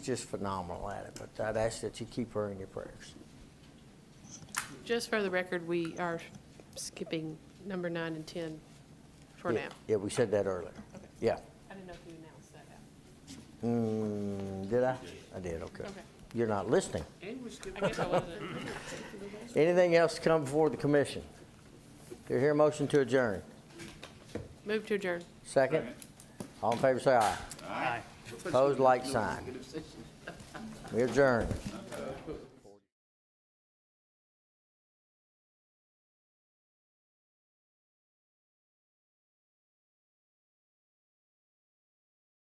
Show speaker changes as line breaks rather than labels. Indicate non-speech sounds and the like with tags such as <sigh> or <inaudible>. just phenomenal at it, but I'd ask that you keep her in your prayers.
Just for the record, we are skipping number nine and 10 for
Yeah,
now.
Yeah, we said that earlier. Yeah.
I didn't know if you announced <laughs> that.
Mm, Did I? I did, okay.
Okay.
You're not listening.
I guess I wasn't.
Anything else to come before the commission? Do you hear a motion to adjourn?
Move to adjourn.
Second? All in favor, say aye. Aye. Opposed, like sign. We adjourn.